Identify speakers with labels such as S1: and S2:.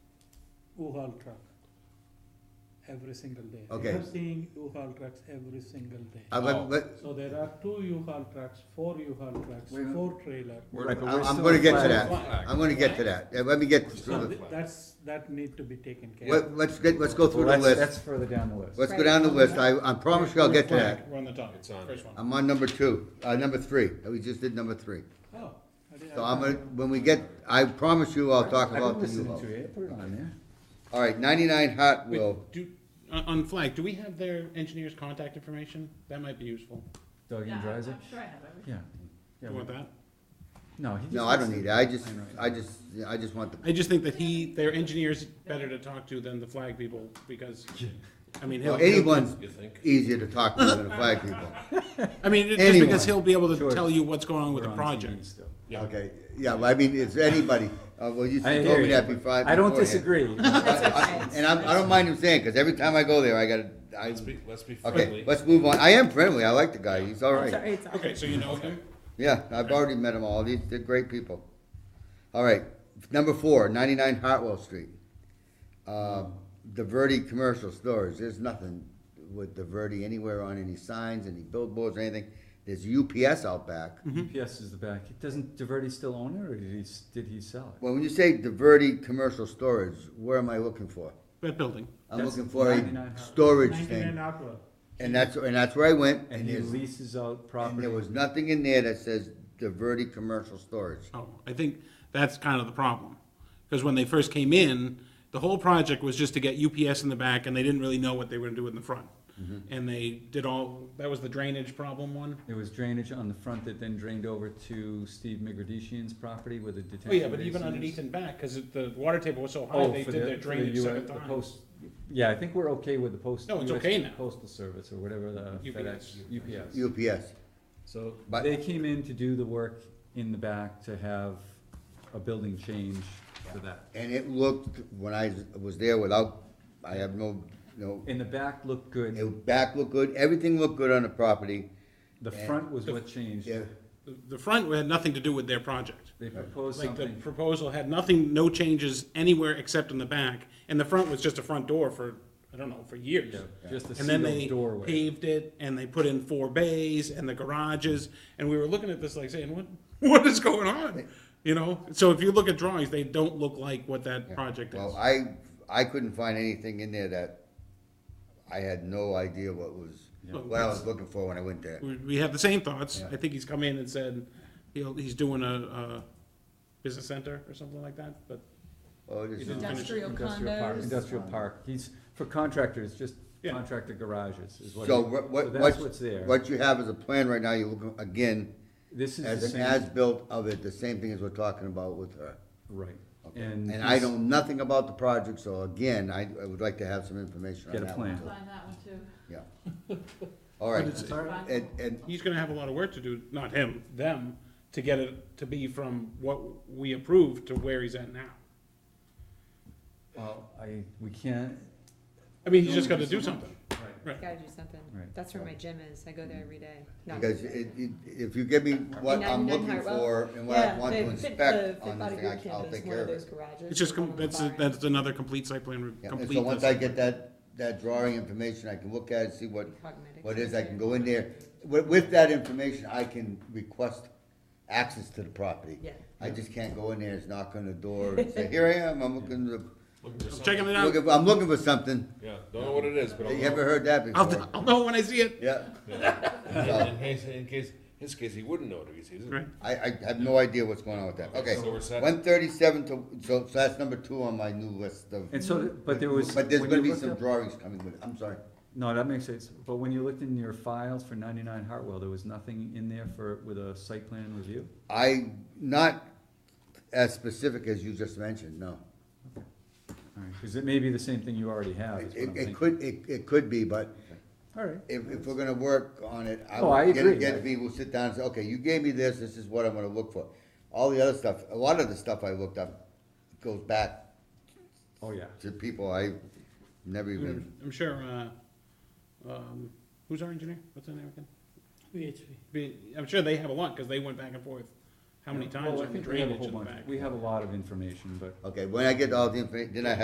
S1: U-Haul truck every single day.
S2: Okay.
S1: You're seeing U-Haul trucks every single day.
S2: Uh,
S3: Oh.
S2: but, but,
S1: So there are two U-Haul trucks, four U-Haul trucks,
S4: Wait a minute.
S1: four trailer.
S3: We're-
S2: Right,
S3: but
S2: I'm-
S3: we're
S2: I'm
S3: still
S2: gonna
S3: a
S2: get to
S3: flag.
S2: that. I'm gonna get to that, Yeah, let me get,
S1: So
S2: through
S1: th- that's, that need to be taken
S2: the-
S1: care of.
S2: let, let's get, let's go through
S3: Well,
S2: the
S3: that's, that's
S2: list,
S3: further down the list.
S2: let's go down the list, I, I promise you I'll get to that.
S5: We're on the top,
S4: It's on.
S5: first one.
S2: I'm on number two, uh, number three, we just did number three.
S1: Oh, I didn't-
S2: So I'm gonna, when we get, I promise you I'll talk
S3: I've
S2: about
S3: been
S2: the
S3: listening
S2: U-Haul.
S3: to you, put it on there.
S2: All right, ninety-nine
S5: Wait,
S2: Hartwell,
S5: Do, on, on Flag, do we have their engineer's contact information? That might be useful.
S3: Doug
S6: Yeah,
S3: and
S6: I'm I'm
S3: Dreiser?
S6: sure I have everything.
S3: Yeah.
S5: Do
S3: Yeah,
S5: you want
S3: we-
S5: that?
S3: No, he just.
S2: no, I don't
S3: wants
S2: need it, I just,
S3: Mine right
S2: I
S3: now.
S2: just, I just want the,
S5: I just think that he, their engineer's better to talk to than the Flag people, because, I mean, he'll.
S2: well, anyone's
S4: You think?
S2: easier to talk to than the flag people.
S5: I mean, it- just
S2: anyone.
S5: because he'll be able to
S3: Sure.
S5: tell you what's going on with
S3: We're
S5: the
S3: on TV
S5: project.
S3: still.
S5: Yeah.
S2: Okay, yeah, well, I mean, it's anybody, uh, well, you
S3: I
S2: told
S3: hear
S2: me
S3: you.
S2: that before.
S3: I don't
S2: beforehand.
S3: disagree.
S6: That's
S2: I-
S6: okay.
S2: And I'm, I don't mind him saying, cause every time I go there, I gotta, I,
S4: Let's be, let's be
S2: okay,
S4: friendly.
S2: let's move on, I am friendly, I like the guy, he's all right.
S6: Sorry, it's all
S5: Okay,
S6: right.
S5: so you know him?
S2: Yeah, I've already met them all. These, they're great people. All right, number four, 99 Hartwell Street. Uh, the Verde commercial stores. There's nothing with the Verde anywhere on any signs, any billboards, or anything. There's UPS out back.
S5: Mm-hmm.
S3: UPS is the back. Doesn't Diverty still own it, or did he, s- did he sell it?
S2: Well, when you say the Verde commercial storage, where am I looking for?
S5: That building.
S2: I'm
S3: That's
S2: looking for
S3: 99
S2: a
S3: Hartwell.
S2: storage
S1: Ninety-nine
S2: thing,
S1: Hartwell.
S2: and that's and that's where I went.
S3: And he
S2: there's-
S3: leases out
S2: and
S3: property.
S2: there was nothing in there that says the Verde commercial storage.
S5: Oh, I think that's kind of the problem. Because when they first came in, the whole project was just to get UPS in the back and they didn't really know what they were gonna do in the front.
S3: Mm-hmm.
S5: And they did all, that was the drainage problem one.
S3: There was drainage on the front that then drained over to Steve Migradishian's property with the detention
S5: Oh,
S3: basin.
S5: yeah, but even
S3: is.
S5: underneath and back, because the water table was so high,
S3: Oh,
S5: they
S3: for
S5: did
S3: the-
S5: their
S3: for the
S5: drainage
S3: US
S5: second
S3: the
S5: time.
S3: post- Yeah, I think we're okay with the post.
S5: No, it's
S3: US
S5: okay now.
S3: Postal Service or whatever the
S5: UPS.
S3: FedEx, UPS.
S2: UPS.
S3: So
S2: But-
S3: they came in to do the work in the back to have a building change for that.
S2: And it looked, when I was there without, I have no, no,
S3: And the back looked good.
S2: it back looked good, everything looked good on the property.
S3: The
S2: And-
S3: front was
S5: The-
S3: what changed.
S2: Yeah,
S5: The- The front had nothing to do with their project.
S3: They proposed
S5: Like the
S3: something.
S5: proposal had nothing, no changes anywhere except in the back. And the front was just a front door for, I don't know, for years.
S3: Yeah, just a
S5: And then
S3: sealed
S5: they
S3: doorway.
S5: paved it and they put in four bays and the garages. And we were looking at this like saying, what, what is going on? You know, so if you look at drawings, they don't look like what that project is.
S2: well, I, I couldn't find anything in there that, I had no idea what was, what I was looking for when I went there.
S5: We, we have the same thoughts.
S2: Yeah.
S5: I think he's come in and said, he'll, he's doing a, a business center or something like that, but
S2: Oh, this is-
S6: Industrial
S3: Industrial park.
S6: condos.
S3: Industrial park. He's, for contractors, just
S5: Yeah.
S3: contractor garages is what.
S2: So
S3: he-
S2: what,
S3: so
S2: what,
S3: That's what's
S2: what's,
S3: there.
S2: what you have is a plan right now, you're looking, again,
S3: This is the
S2: as an
S3: same,
S2: as-built of it, the same thing as we're talking about with her.
S3: right.
S2: And I
S3: he's-
S2: know nothing about the project, so again, I, I would like to have some information on
S3: Get a
S2: that one.
S3: plan.
S6: I'll Find that one too.
S2: Yeah. All right,
S5: it's-
S6: Sorry.
S2: and, and
S5: he's gonna have a lot of work to do, not him, them, to get it to be from what we approved to where he's at now.
S3: Well, I, we can't,
S5: I mean, he's just gotta do something. Right.
S7: Gotta do something.
S3: Right.
S7: That's where my gym is. I go there every day. Not
S2: Because it, it, if you give me what I'm
S7: 99
S2: looking
S7: Hartwell?
S2: for and what I
S7: Yeah,
S2: want
S7: the
S2: to
S7: Fit-
S2: inspect
S7: the
S2: on
S7: Fit
S2: this
S7: Body
S2: thing, I-
S7: Boot Camp
S2: I'll
S7: is
S2: take care
S7: one of
S2: of
S7: those
S2: it.
S7: garages.
S5: It's just,
S7: one
S5: com-
S7: on the
S5: that's,
S7: far
S5: a-
S7: end.
S5: that's another complete site plan, re-
S2: Yeah, and
S5: complete.
S2: so once I
S5: list.
S2: get that, that drawing information, I can look at it, see what,
S7: Cognitive
S2: what is, I can go in there. With, with that information, I can request access to the property.
S7: Yeah.
S2: I just can't go in there, it's knock on the door and say, here I am, I'm looking, to-
S4: Looking for something.
S5: Checking it out,
S2: looking, I'm looking for something.
S4: Yeah, don't know what it is, but I'll.
S2: You ever heard that
S5: I'll,
S2: before?
S5: I'll know when I see it,
S2: Yeah,
S4: Yeah. In case, in case, his case, he wouldn't know it because he doesn't.
S5: right?
S2: I, I have no idea what's going on with that. Okay,
S4: So we're set.
S2: one thirty-seven to, so, so that's number two on my new list of.
S3: and so, th- but there was.
S2: But there's
S3: when
S2: gonna
S3: you
S2: be
S3: looked
S2: some
S3: up-
S2: drawings coming with it, I'm sorry.
S3: No, that makes sense, but when you looked in your files for ninety-nine Hartwell, there was nothing in there for, with a site plan review?
S2: I, not as specific as you just mentioned, no.
S3: Alright, cause it may be the same thing you already have, is what I'm
S2: It,
S3: thinking.
S2: it could, it, it could be, but
S3: Alright,
S2: if, if we're gonna work on it, I
S3: Oh, I
S2: would get,
S3: agree.
S2: get people, sit down and say, okay, you gave me this, this is what I'm gonna look for. All the other stuff, a lot of the stuff I looked up goes back
S3: oh yeah,
S2: to people I never even,
S5: I'm sure, uh, um, who's our engineer? What's his name again?
S1: VHP.
S5: Be- I'm sure they have a lot, cause they went back and forth, how many
S3: Well,
S5: times
S3: I
S5: on the
S3: think we have a
S5: drainage
S3: whole
S5: in the
S3: bunch.
S5: back.
S3: We have a lot of information, but
S2: okay, when I get all the information, then I have